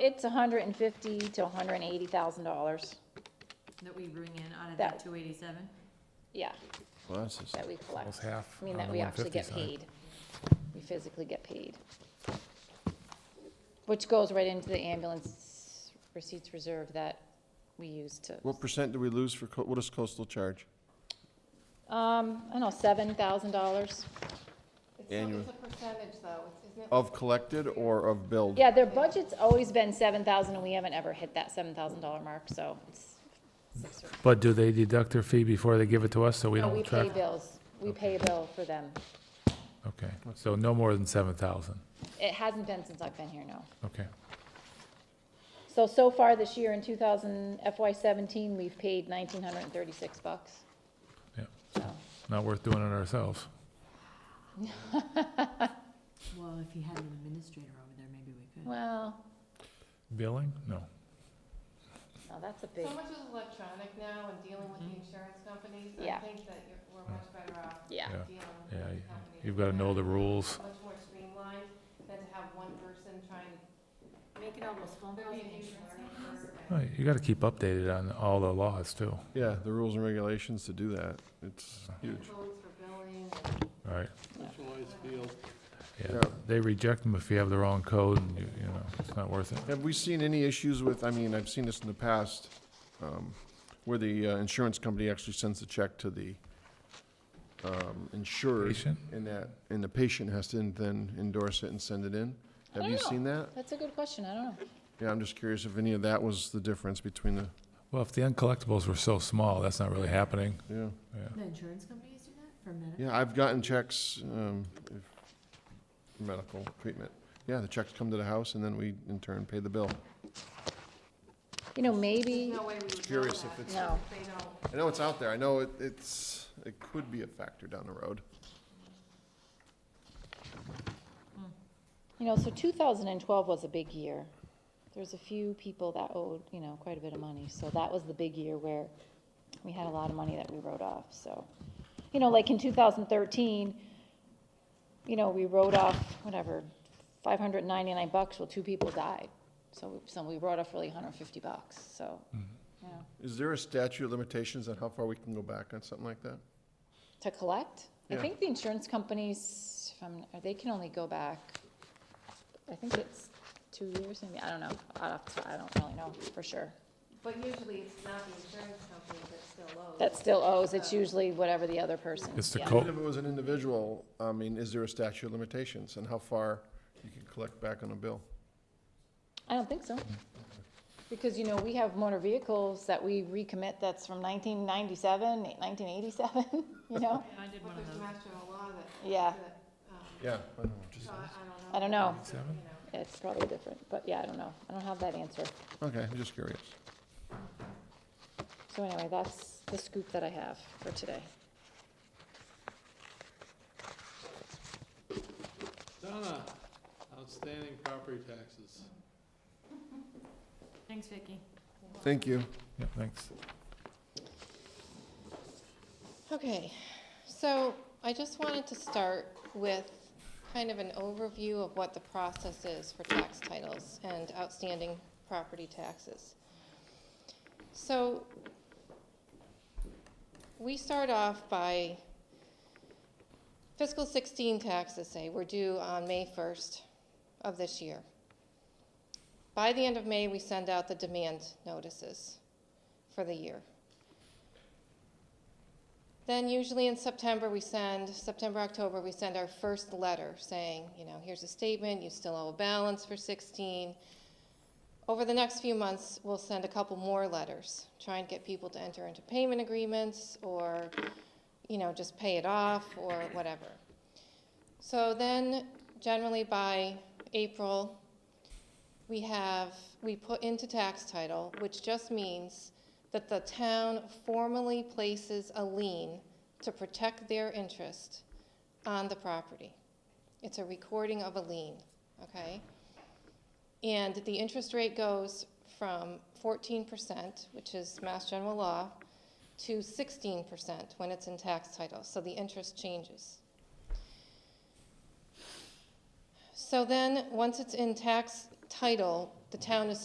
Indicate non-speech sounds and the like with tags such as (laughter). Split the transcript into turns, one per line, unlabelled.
It's hundred and fifty to hundred and eighty thousand dollars,
That we bring in out of
That-
that two eighty-seven?
yeah,
Well, that's just,
that we collect.
Almost half
I mean,
on
that
the
we actually get
150
paid. We physically get paid. Which goes right into the ambulance receipts reserve that we use to,
what percent do we lose for, co- what does coastal charge?
um, I don't know, seven thousand dollars?
Annual.
It's a percentage, though, it's- isn't it?
Of collected or of billed?
Yeah, their budget's always been seven thousand, and we haven't ever hit that seven thousand dollar mark, so it's six or
But do they deduct their fee before they give it to us, so we
No,
don't
we pay
track?
bills. We pay a bill for them.
Okay, so no more than seven thousand,
It hasn't been since I've been here, no.
okay.
So, so far this year in 2000 FY '17, we've paid 1,936 bucks.
Yep.
So,
Not worth doing it ourselves.
Well, if he had an administrator over there, maybe we could.
well,
Billing? No.
no, that's a big,
So much is electronic now and dealing with the insurance companies,
Mm-hmm. Yeah.
I think that you're, we're much better off
yeah.
Yeah.
dealing with
Yeah,
the
you-
companies.
you've gotta know the rules.
Much more streamlined than to have one person trying to,
Make it almost phone
there'd be a huge learning curve. and-
Well, You gotta keep updated on all the laws too,
Yeah, the rules and regulations to do that, it's huge.
Codes for billing,
right?
Specialized field.
Yeah,
Yeah.
they reject them if you have the wrong code, and you, you know, it's not worth it.
Have we seen any issues with, I mean, I've seen this in the past, um, where the uh, insurance company actually sends a check to the um, insured,
Patient?
and that, and the patient has to then endorse it and send it in? Have you
don't know.
seen that?
That's a good question. I don't know.
Yeah, I'm just curious if any of that was the difference between the,
Well, if the uncollectibles were so small, that's not really happening.
yeah.
Yeah.
The insurance companies do that for medical?
Yeah, I've gotten checks, um, if- for medical treatment. Yeah, the checks come to the house and then we in turn pay the bill.
You know,
there's
maybe,
no way we would know
Curious if
that,
it's,
no.
they don't.
I know it's out there, I know it, it's, it could be a factor down the road.
You know, so 2012 was a big year. There's a few people that owed, you know, quite a bit of money, so that was the big year where we had a lot of money that we wrote off, so. You know, like in 2013, you know, we wrote off, whatever, 599 bucks, well, two people died. So, we- so we wrote off really 150 bucks, so, you know,
Is there a statute of limitations on how far we can go back on something like that?
to collect. I
Yeah.
think the insurance companies, if I'm- they can only go back I think it's two years, maybe, I don't know, I'd have to, I don't really know for sure.
But usually it's not the insurance company that still owes.
That still owes, it's usually whatever the other person.
It's the
yeah.
co-
Even if it was an individual, I mean, is there a statute of limitations on how far you can collect back on a bill?
I don't think so. Because, you know, we have motor vehicles that we recommit that's from 1997, 1987. (laughs) you know?
I did
But
one of
there's
those.
master law that,
Yeah,
that, um,
Yeah, I don't know, just-
so I, I don't know.
I don't know,
Seven?
You know.
it's probably different, but yeah, I don't know, I don't have that answer.
okay, I'm just curious.
So anyway, that's the scoop that I have for today.
Donna, outstanding property taxes.
Thanks, Vicki.
Thank you.
Yeah, thanks.
Okay, so I just wanted to start with kind of an overview of what the process is for tax titles and outstanding property taxes. So we start off by fiscal 16 taxes, say, were due on May 1st of this year. By the end of May, we send out the demand notices for the year. Then usually in September, we send, September, October, we send our first letter saying, you know, here's a statement, you still owe a balance for 16. Over the next few months, we'll send a couple more letters, try and get people to enter into payment agreements or, you know, just pay it off or whatever. So then generally by April, we have, we put into tax title, which just means that the town formally places a lien to protect their interest on the property. It's a recording of a lien, okay? And the interest rate goes from fourteen percent, which is Mass General Law, to sixteen percent when it's in tax title, so the interest changes. So then, once it's in tax title, the town is